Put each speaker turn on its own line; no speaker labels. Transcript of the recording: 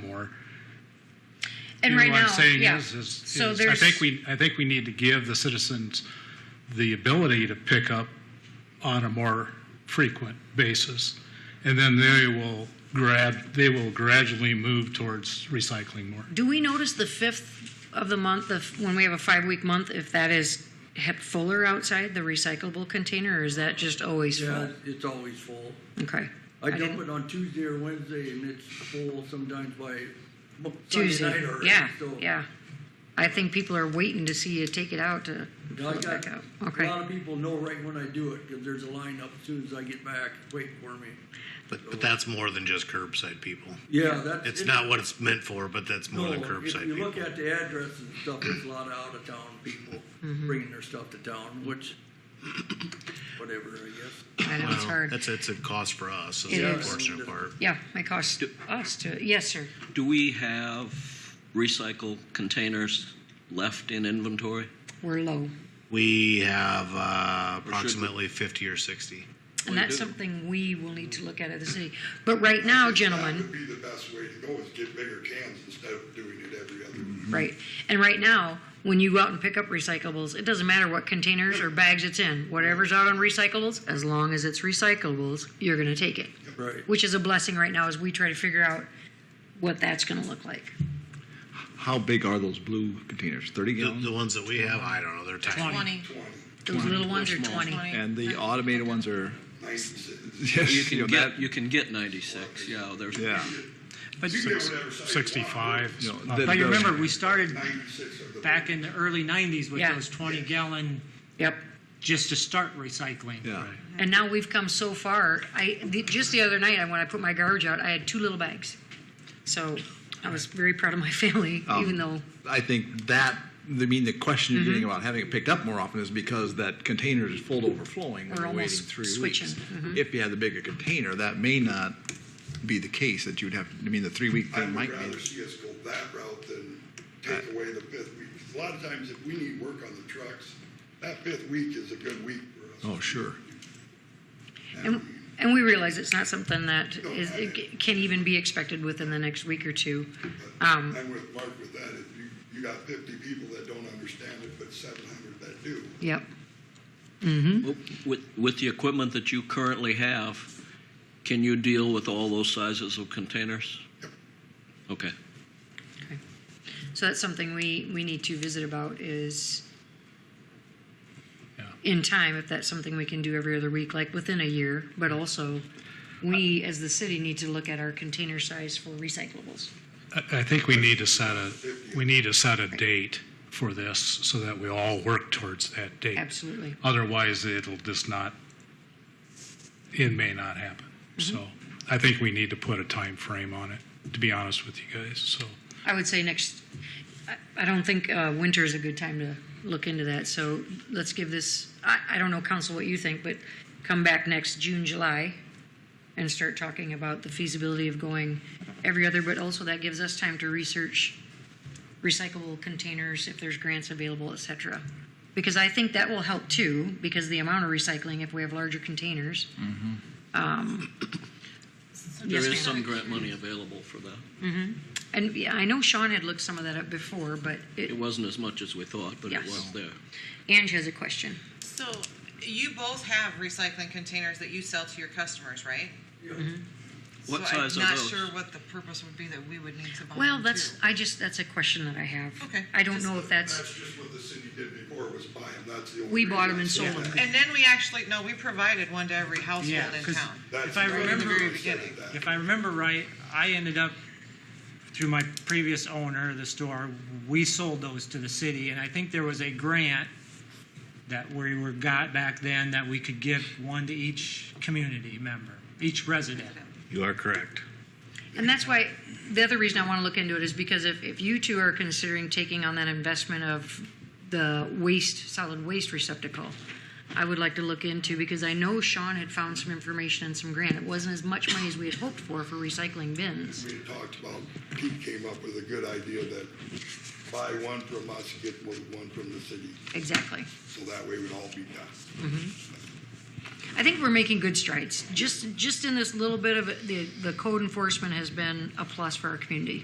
for. You
And
know
right
What
now,
I'm saying
yeah.
is, is,
So
is I
there's-
think we, I think we need to give the citizens the ability to pick up on a more frequent basis. And then they will grad, they will gradually move towards recycling more.
Do we notice the fifth of the month, if, when we have a five-week month, if that is hep- fuller outside, the recyclable container, or is that just always
Yeah,
full?
it's always full.
Okay.
I dump
didn't-
it on Tuesday or Wednesday and it's full sometimes by mo- Sunday
Tuesday,
night already.
yeah,
so-
yeah. I think people are waiting to see you take it out to
And
pull
I
it
got,
back
a
out. Okay.
lot of people know right when I do it because there's a line up as soon as I get back waiting for me.
But, but that's more than just curbside people.
Yeah, that's.
It's not what it's meant for, but that's more
No,
than
if
curbside
you look
people.
at the address and stuff, there's a lot of out of town people
Mm-hmm.
bringing their stuff to town, which, whatever, I guess.
I know it's
Well,
hard.
That's, that's a cost for us, is
It
the
is.
unfortunate part.
Yeah, it costs us to, yes, sir.
Do we have recycle containers left in inventory?
We're low.
We have uh,
we?
approximately 50 or 60.
And
We
that's
do.
something we will need to look at at the city. But right now,
That
gentlemen,
would be the best way to go, is get bigger cans instead of doing it every other.
Right. And right now, when you go out and pick up recyclables, it doesn't matter what containers or bags it's in. Whatever's out on recyclables, as long as it's recyclables, you're going to take it,
Right.
which is a blessing right now as we try to figure out what that's going to look like.
How big are those blue containers? 30
The,
gallons?
the ones that we have, I don't know, they're tiny.
Twenty.
Those little ones are
small.
20.
And the automated ones are,
Nice.
yes,
You can
know,
get,
that-
you can get 96, yeah, there's.
yeah.
But,
You can get whatever size you want.
Sixty-five.
You know,
uh,
the-
but you remember, we started
Ninety-six of the.
back in the early nineties with
Yeah.
those twenty gallon,
Yep.
just to start recycling.
Yeah.
And now we've come so far. I the, just the other night, I- when I put my garbage out, I had two little bags. So I was very proud of my family, even though
I think that, I mean, the question you're
Mm-hmm.
getting about having it picked up more often is because that container is full to overflowing when
We're
you're waiting
almost
three
switching. Mm-hmm.
weeks. If you had the bigger container, that may not be the case that you'd have, I mean, the three week
I
thing
would
might Uh,
rather
be.
see us go that route than take away the fifth week. 'Cause A lot of times, if we need work on the trucks, that fifth week is a good week for us.
Oh, sure.
And, and we realize it's not something that
No,
is,
I-
it ca- can even be expected within the next week or two. Um,
I'm with Mark with that. If you, you got fifty people that don't understand it, but seven hundred that do.
Yep.
With, with the equipment that you currently have, can you deal with all those sizes of containers? Okay.
So that's something we, we need to visit about is
Yeah.
in time, if that's something we can do every other week, like within a year, but also we as the city need to look at our container size for recyclables.
I, I think we need to set a, we need to set a date for this so that we all work towards that date.
Absolutely.
Otherwise, it'll just not, it may not happen. So I think we need to put a time frame on it, to be honest with you guys, so.
I would say next, I, I don't think uh, winter is a good time to look into that. So let's give this, I, I don't know, council, what you think, but come back next June, July and start talking about the feasibility of going every other, but also that gives us time to research recyclable containers, if there's grants available, et cetera. Because I think that will help too, because the amount of recycling, if we have larger containers. um,
There
yes,
is
ma'am.
some grant money available for that.
And yeah, I know Sean had looked some of that up before, but
It
it,
wasn't as much as we thought, but it
Yes.
was there.
Ange has a question.
So,
You both have recycling containers that you sell to your customers, right?
What
so
size
I'm
are
not
those?
sure what the purpose would be that we would need to buy.
Well,
them,
that's
Oh, too.
I just that's a question that I have.
Okay.
I don't know if that's
That's just what the city did before, was buy them. That's the only.
we bought them
reason I
and
said
sold them.
that.
And then we actually no, we provided one to every household
yeah,
in
because
town.
That's
if I
not-
remember,
very
I said
beginning.
that.
if I remember right, I ended up through my previous owner, the store, we sold those to the city, and I think there was a grant that we were got back then that we could give one to each community member, each resident.
You are correct.
And that's why the other reason I want to look into it is because if, if you two are considering taking on that investment of the waste solid waste receptacle, I would like to look into because I know Sean had found some information and some grant. It wasn't as much money as we had hoped for for recycling bins.
We had talked about, Pete came up with a good idea that buy one from us, get one one from the city,
Exactly.
so that way we'd all be done.
I think we're making good strides. Just just in this little bit of it, the the code enforcement has been a plus for our community.